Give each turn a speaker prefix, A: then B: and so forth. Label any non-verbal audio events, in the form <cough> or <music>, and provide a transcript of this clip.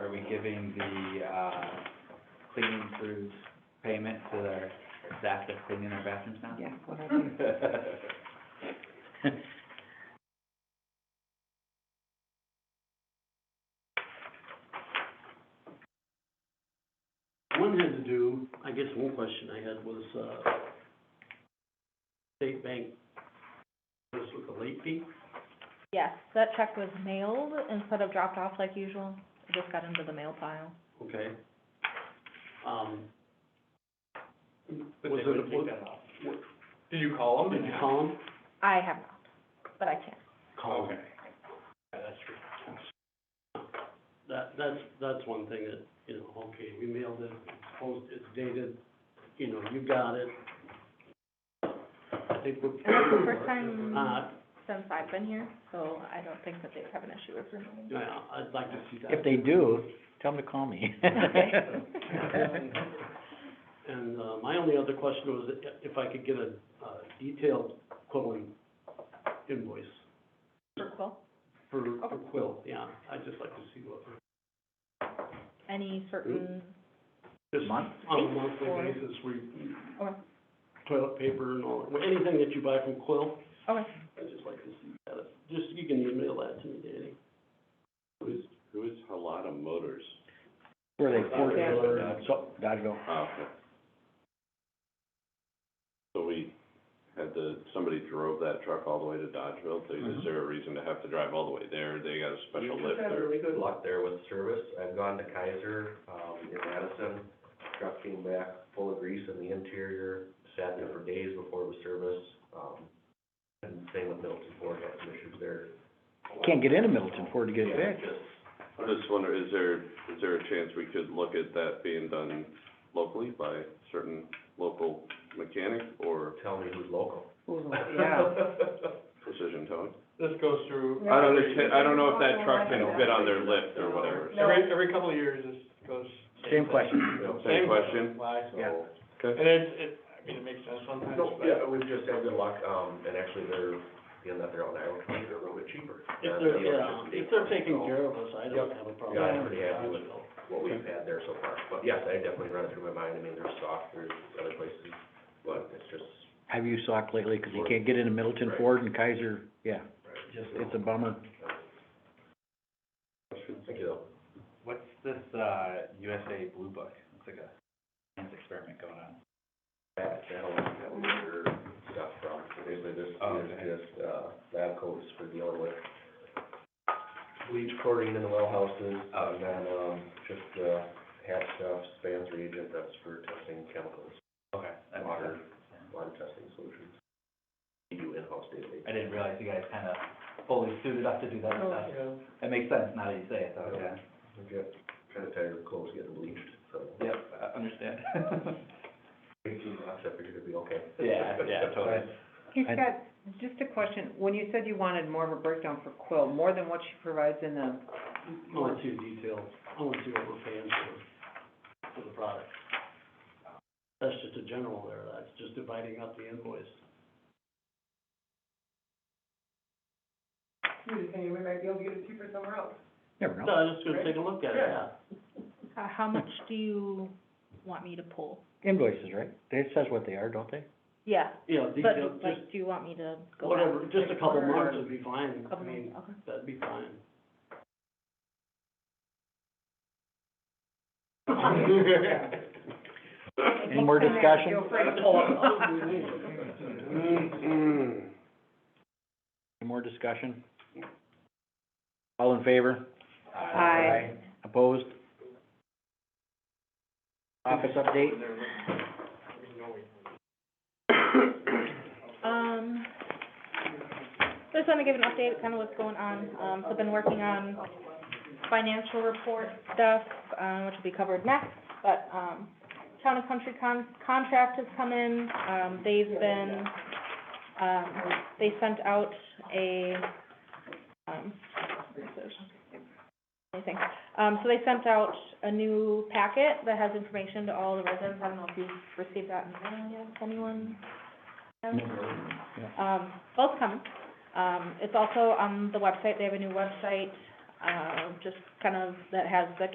A: giving the, uh, cleaning crews payment to their staff that's cleaning their bathrooms now?
B: Yes, what I
A: Hmm.
B: do.
A: <laughs>
C: One had to do, I guess one question I had was, uh, state bank, this with the late fee,
D: Yes, that check was mailed instead of dropped off like usual. It just got into the mail pile.
C: okay? Um,
E: But
C: Was
E: they
C: it a
E: would
C: blue-
E: take that off. Did you call them?
C: did you call them?
D: I have not, but I can.
C: Call 'em.
E: Okay. Yeah, that's true.
C: That, that's, that's one thing that, you know, okay, we mailed it, it's posted, it's dated, you know, you got it. I think we're.
D: And that's the first time-
C: Uh,
D: Since I've been here, so I don't think that they would have an issue with removing. it.
C: yeah, I'd like to see that.
B: If they do, tell them to call
A: <laughs>
B: me.
D: Okay.
C: And, uh, my only other question was if I could get a, uh detailed quilling invoice
D: For Quill,
C: for, for
D: Okay.
C: quill, yeah, I'd just like to see what,
D: any certain,
C: just
A: Month?
C: on a monthly
D: Or-
C: basis, we,
D: okay,
C: toilet paper and all, anything that you buy from quill,
D: okay,
C: I'd just like to see that, just, you can email that to me, Danny.
F: Who's, who's Halata Motors?
B: Were they
C: Ford
B: forty,
C: or-
B: so, Dodgeville?
F: Oh, okay. So we had the, somebody drove that truck all the way to Dodgeville, so is there a reason to have to drive all the way there? They got a special
G: We've
F: lift
G: just had
F: there?
G: really good luck there with service. I've gone to Kaiser, um, in Madison. Truck came back full of grease in the interior, sat there for days before it was serviced. Um, and same with Milton Ford, had some issues there.
B: Can't get into Milton Ford to get it
G: Yeah,
B: fixed.
G: just-
F: I just wonder, is there, is there a chance we could look at that being done locally by certain local mechanic or
G: Tell me who's local.
B: Yeah.
C: <laughs>
F: precision towing?
E: This goes through.
F: I don't understand, I don't know if that truck can fit on their lift or
C: uh,
F: whatever.
E: Every, every couple of years, this goes.
B: Same question.
F: Same question.
E: Why?
B: Yeah.
G: So-
F: Okay.
E: And it's, it, I mean, it makes sense sometimes,
G: No,
E: but.
G: yeah, we've just had good luck, um, and actually they're, being that they're on Iowa, County, they're a little bit cheaper.
C: If
G: than
C: they're,
G: the
C: yeah,
G: electricity.
C: if they're taking
G: So-
C: care of us, I don't have a problem.
G: Yeah, I'm pretty happy with what we've had there so far, but yes, I definitely run it through my mind, I mean, there's stock, there's other places, but it's just,
B: Have you socked lately? Cause you can't get into Milton
G: Right.
B: Ford and Kaiser, yeah,
G: just,
B: it's a bummer.
G: thank you though.
A: What's this, uh, USA Blue Book? It's like a science experiment going on.
G: That, that'll, that was your stuff from, so basically this,
A: Oh,
G: is
A: okay.
G: just, uh, lab coats for dealing with bleach chlorine in the well houses,
A: Oh.
G: and then, um, just, uh, hat stuff, spans reagent, that's for testing chemicals,
A: Okay, that makes
G: Water.
A: sense.
G: water testing solutions. We do in-house daily.
A: I didn't realize you guys kind of fully suited up to do that stuff. That makes sense now that you say it, though, yeah.
G: Yeah. I've got kind of tired of clothes getting bleached, so.
A: Yep, I understand. <laughs>
G: Eighteen bucks, I figured it'd be okay.
A: Yeah, yeah, totally.
B: He's got.
H: Just a question, when you said you wanted more of a breakdown for Quill, more than what she provides in the,
C: I want to see the details, I want to see what we're paying for, for the product. That's just a general there, that's just dividing up the invoice.
B: Never
C: No,
B: know.
C: I'm just gonna take a look at it, yeah.
D: uh, how much do you want me to pull?
B: Invoices, right? It says what they are, don't they?
D: Yeah,
C: Yeah,
D: but
C: detail, just,
D: like, do you want me to go back?
C: whatever, just a couple
D: or-
C: marks would be fine, I
D: Couple
C: mean,
D: months, okay.
C: that'd be fine.
B: Any more discussion?
H: feel free to pull <laughs>
C: Mm-mm.
B: Any more discussion? All in favor?
H: Aye.
B: Opposed? Office update?
D: Um, just wanna give an update, kinda what's going on, um, so been working on financial report stuff, um, which will be covered next, but, um, Town and Country con- contract has come in, um, they've been, um, they sent out a, um, this is- anything, um, so they sent out a new packet that has information to all the residents, I don't know if you've received that in the mail yet, if anyone? has? Um, both come. Um, it's also on the website, they have a new website, uh, just kind of, that has the